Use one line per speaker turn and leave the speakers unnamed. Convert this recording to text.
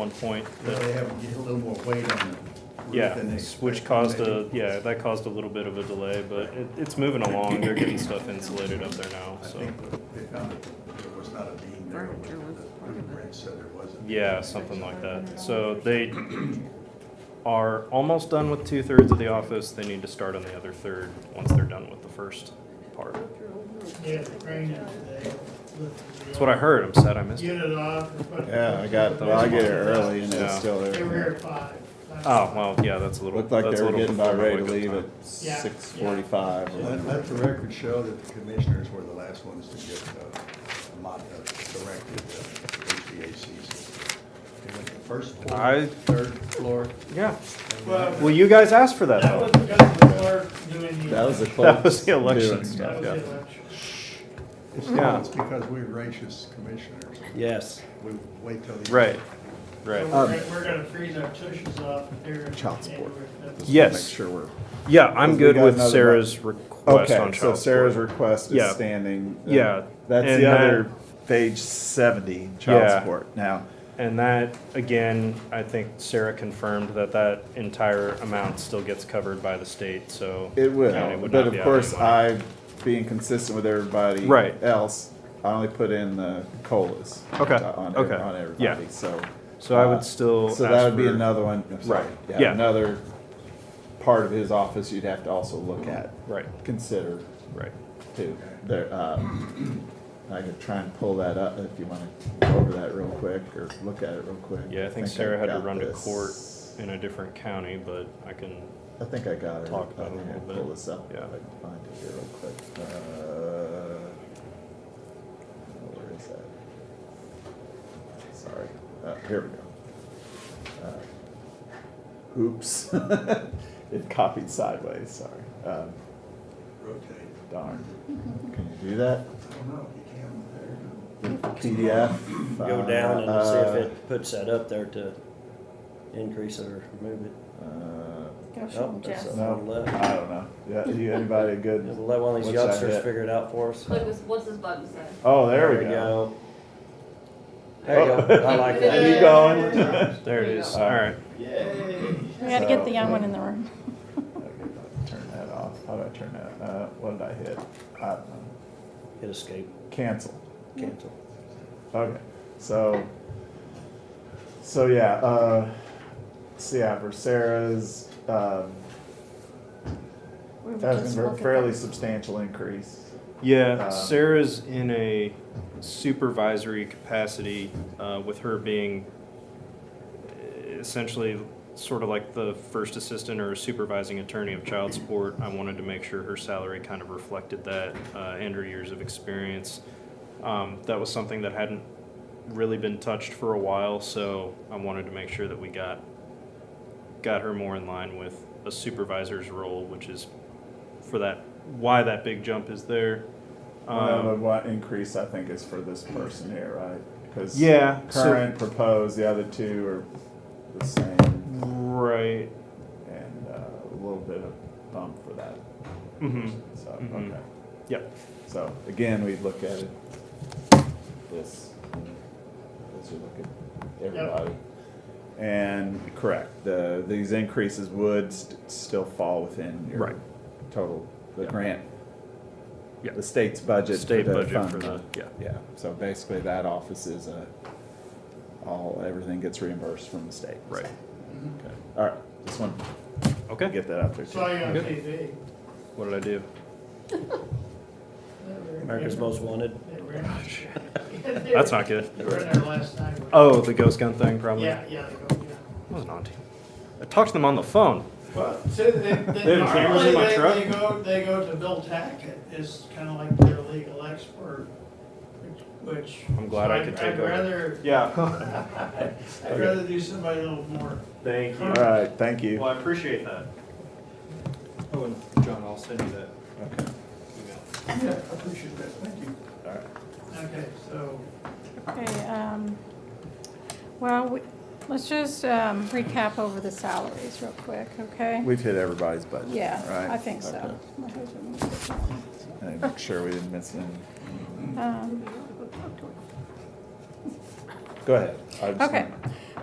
one point.
Because
that-
they have a little more weight on the roof
Yeah,
than they expected.
which caused a,
maybe.
yeah, that caused a little bit of a delay, but it, it's moving along. They're getting stuff insulated up there now,
I
so.
think they found that there was not a beam there, which the
Furniture was part of it.
blueprint said there wasn't.
Yeah, something like that. So they are almost done with two thirds of the office. They need to start on the other third once they're done with the first part.
Yeah, it rained today.
That's what I heard. I'm sad I missed it.
Get it off.
Yeah, I got, well, I get it early and it's
Yeah.
still
They were here
there.
at five.
Oh, well, yeah, that's a little.
Looked like
that's
they
a
were
little
getting about
before my
ready to
wake-up
leave
time.
at six forty-five.
Let, let the record show that the commissioners were the last ones to get the mod, uh, directed uh, the HVAC system. They went to first
I-
floor, third floor.
Yeah.
and
Well,
then-
Well, you guys asked for that
That
though.
was because the clerk doing the.
That was the close.
That was the election
That
stuff,
was
yeah.
the election.
It's
yeah.
it's because we're gracious commissioners.
Yes.
We wait till the.
Right,
So
right.
we're, gonna- we're gonna freeze our tushes off here. in
Child support.
January fifth.
Yes.
Make sure we're.
Yeah, I'm
We
good
got
with
another
Sarah's request
Okay,
on
so
child
Sarah's
support.
request
Yeah.
is standing. Uh,
Yeah,
That's
and
the other,
that-
page seventy, child
Yeah.
support. Now,
And that, again, I think Sarah confirmed that that entire amount still gets covered by the state, so.
it
county
will,
would
but
not be out
of
any
course,
money.
I, being consistent with everybody.
Right.
Else, I only put in the colas. uh,
Okay,
On,
okay,
on
yeah.
everybody, so.
So I
uh,
would still.
So
ask
that would be
for-
another one, I'm sorry,
Right, yeah.
yeah, another part of his office you'd have to also look at,
Right,
consider
right.
too. There, uh, I could try and pull that up if you wanna go over that real quick or look at it real quick.
Yeah, I think Sarah had to
got
run to
this.
court in a different county, but I can,
I think I got it.
Talk about it
I
a
think I
little
Pull
bit.
this up.
Yeah.
I can find it here real quick. Uh, Where is that? Sorry. Uh, here we go. Uh, Oops. It copied sideways, sorry. Um,
Rotate.
Darn. Can you do that?
I don't know, you can there.
PDF?
go down and see
uh,
if it puts that up there to increase it or remove it.
uh,
Go show
Nope,
them,
that's
Jess.
a-
No, I don't know. Yeah, you, anybody good?
We'll let one of these
what's that
youngsters
hit?
figure it out for us.
Look, what's- what's this button say?
Oh, there we go.
There you go. I like that.
Keep going.
there it is,
There you go.
alright.
We gotta get the
So-
young one in the room.
Okay, Turn that off. How do I turn that? Uh, what did I hit? I don't know.
Hit escape,
Cancel.
cancel.
Okay. So, so yeah. Uh, so yeah, for Sarah's, um,
We were
that
just
was a
looking-
fairly substantial increase.
Yeah,
Um,
Sarah's in a supervisory capacity uh, with her being essentially sort of like the first assistant or supervising attorney of child support. I wanted to make sure her salary kind of reflected that uh, and her years of experience. Um, that was something that hadn't really been touched for a while, so I wanted to make sure that we got got her more in line with a supervisor's role, which is for that why that big jump is there.
Um,
Um,
what increase I think is for this person here, right? Because
Yeah, so-
current proposed, the other two are the same,
right.
and uh, a little bit of bump for that.
hmm
So
Mhm.
okay.
Yep.
So again, we look at it, this, as we look at everybody. And, correct, the, these increases would st- still fall within
Right.
your total, the
Yeah.
grant.
Yeah.
The state's budget. for
State
the
budget
fund
for the-
balance.
yeah.
Yeah, so basically that office is a, all, everything gets reimbursed from the state.
Right.
Okay, all right, just want to
Okay.
get that out there too.
Saw you on
Good.
TV.
What did I do?
America's Most Wanted.
That's not good.
They were in there last night.
Oh, the ghost gun thing, probably.
Yeah, yeah, they go, yeah.
I wasn't on to you. I talked to them on the phone.
Well, so they,
They
they,
have cameras in
normally
my
they,
truck?
they go, they go to Bill Tackett, is kinda like their legal expert, which- which.
I'm glad
so
I
I'd-
could take
I'd
over.
rather,
Yeah.
I'd rather do somebody a little more.
Thank
you.
All right, thank you.
I appreciate that.
Oh, and John, I'll send you that
Okay.
email.
Yeah, I appreciate that, thank you.
All right.
Okay, so,
Okay, um, well, we- let's just um, recap over the salaries real quick, okay?
We've hit everybody's budget, right?
Yeah, I think so.
Okay.
My husband was just on, so.
And make sure we didn't miss any.
Um,
Go ahead. I just
Okay,
wanna-